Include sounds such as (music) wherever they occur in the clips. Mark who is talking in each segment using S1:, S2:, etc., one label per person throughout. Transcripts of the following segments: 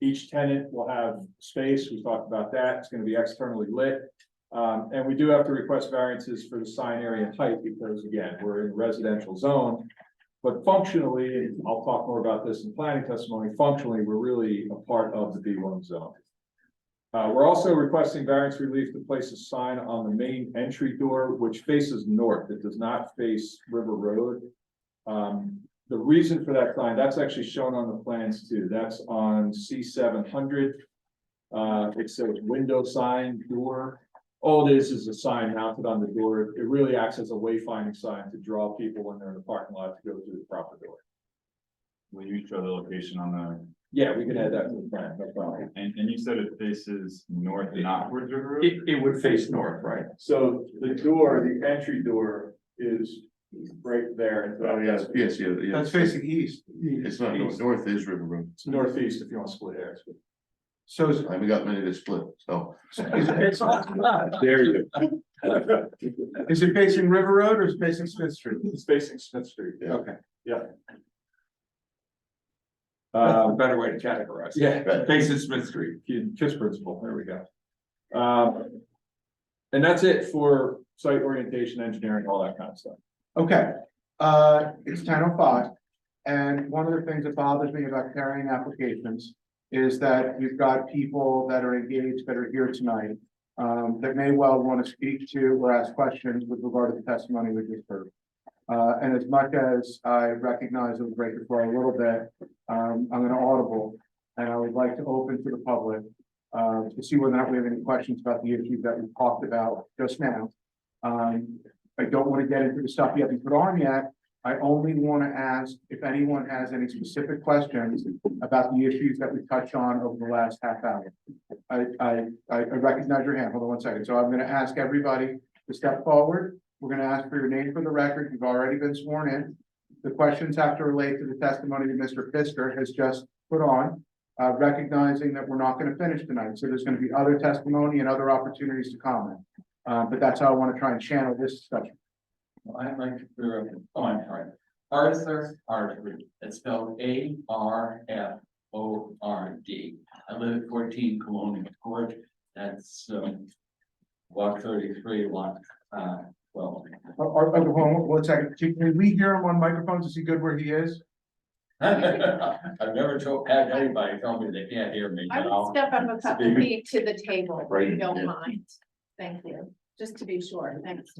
S1: Each tenant will have space, we talked about that, it's gonna be externally lit. Um, and we do have to request variances for the sign area and height, because again, we're in residential zone. But functionally, and I'll talk more about this in planning testimony, functionally, we're really a part of the B one zone. Uh, we're also requesting variance relief to place a sign on the main entry door, which faces north, it does not face River Road. Um, the reason for that sign, that's actually shown on the plans too, that's on C seven hundred. Uh, it says window sign, door, all it is is a sign mounted on the door, it really acts as a wayfinding sign to draw people when they're in the parking lot to go through the proper door.
S2: Will you show the location on the,
S1: Yeah, we can add that to the plan, no problem.
S2: and, and you said it faces north and upwards River Road?
S1: It, it would face north, right? So the door, the entry door is right there.
S3: Oh, yes, yes, yeah, yeah.
S4: That's facing east.
S3: It's not, north north is River Road.
S1: It's northeast if you want to split hairs.
S4: So it's,
S3: I haven't got many to split, so.
S4: it's,
S3: There you
S4: is it facing River Road or is it facing Smith Street?
S1: (laughs) It's facing Smith Street.
S3: Yeah.
S4: Okay, that's a
S1: Um,
S4: better way to categorize. it.
S1: yeah.
S3: go.
S4: Facing Smith Street.
S1: Kids KISS principle, there we go. Um, And that's it for site orientation, engineering, all that kind of stuff.
S4: Okay, uh, it's ten oh five. And one of the things that bothers me about carrying applications is that you've got people that are engaged that are here tonight. Um, that may well want to speak to or ask questions with regard to the testimony we just heard. Uh, and as much as I recognize it was break before a little bit, um, I'm gonna audible. And I would like to open to the public, uh, to see whether or not we have any questions about the issues that we talked about just now. Um, I don't want to get into the stuff you haven't put on yet. I only want to ask if anyone has any specific questions about the issues that we touched on over the last half hour. I, I, I I recognize your hand. Hold on one second. So I'm going to ask everybody to step forward. We're going to ask for your name for the record. You've already been sworn in. The questions have to relate to the testimony that Mr. Fisker has just put on, uh, recognizing that we're not going to finish tonight. So there's going to be other testimony and other opportunities to comment. Uh, but that's how I want to try and channel this discussion.
S5: I'd like to clear up, oh, I'm sorry. Arthur Harford, it's spelled A R F O R D. I live at fourteen Colonial Court, that's, um, block thirty-three, lot, uh, twelve. (laughs)
S4: Uh, uh, uh, hold on one second, can can we hear him on microphones, is he good where he is?
S5: I've never told, had anybody tell me they can't hear me
S6: I would
S5: now.
S6: step up a couple
S5: Speak.
S6: feet to the table, if you
S3: Right, yeah.
S6: don't mind. Thank you, just to be sure, thanks.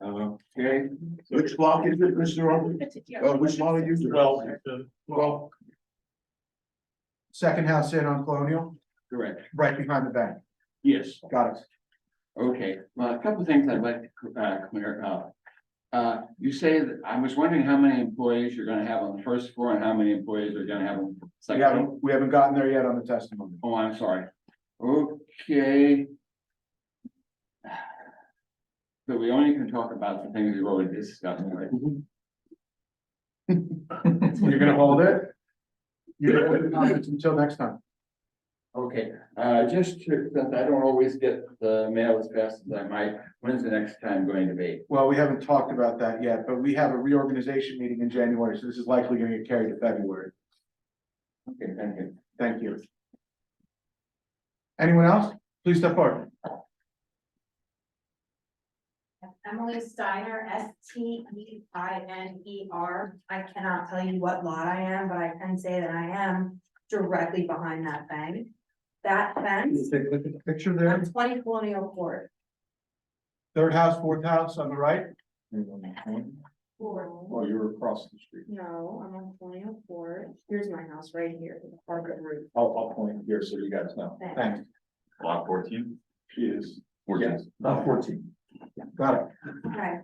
S5: Uh,
S3: Okay, which block is it, Mr. Robert? Uh, which lot are you?
S5: Well,
S3: Well,
S4: Second house in on Colonial,
S5: correct,
S4: right behind the bank,
S5: yes.
S4: got it.
S5: Okay, well, a couple of things I'd like to uh, clear up. Uh, you say that, I was wondering how many employees you're gonna have on the first floor and how many employees are gonna have on the
S4: We
S5: second? floor?
S4: haven't, we haven't gotten there yet on the testimony.
S5: Oh, I'm sorry. Okay. So we only can talk about the things we've already discussed, right?
S4: You're gonna hold it? You're gonna hold the comments until next time.
S5: Okay, uh, just to, since I don't always get the mail as fast as I might, when's the next time going to be?
S4: Well, we haven't talked about that yet, but we have a reorganization meeting in January, so this is likely gonna get carried to February,
S5: Okay, thank you.
S4: thank you. Anyone else? Please step forward.
S7: Emily Steiner, S T E I N E R. I cannot tell you what lot I am, but I can say that I am directly behind that fence. That fence
S4: Take a look at the picture
S7: on
S4: there,
S7: twenty colonial court.
S4: third house, fourth house on the right,
S1: Oh, you were across the street.
S7: No, I'm on colonial court. Here's my house right here, the Harvard roof.
S1: I'll, I'll point here so you guys know.
S7: Thanks.
S4: thanks,
S2: Lot fourteen?
S1: She is,
S3: fourteen.
S1: not fourteen.
S4: got it.
S7: Okay.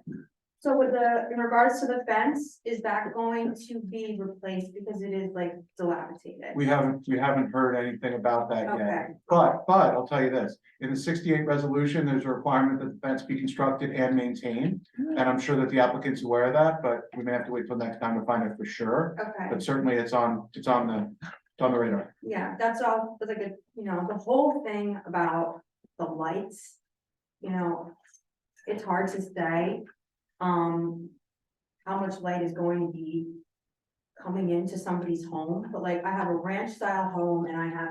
S7: So with the, in regards to the fence, is that going to be replaced because it is like dilapidated?
S4: We haven't, we Um, haven't heard anything about that
S7: Okay.
S4: yet. But, but I'll tell you this, in the sixty-eight resolution, there's a requirement that the fence be constructed and maintained. And I'm sure that the applicant's aware of that, but we may have to wait till next time to find out for sure.
S7: Okay,
S4: But certainly it's on, it's on the, it's on the radar.
S7: yeah, that's all, that's like a, you know, the whole thing about the lights, you know, it's hard to say, um, how much light is going to be coming into somebody's home, but like I have a ranch style home and I have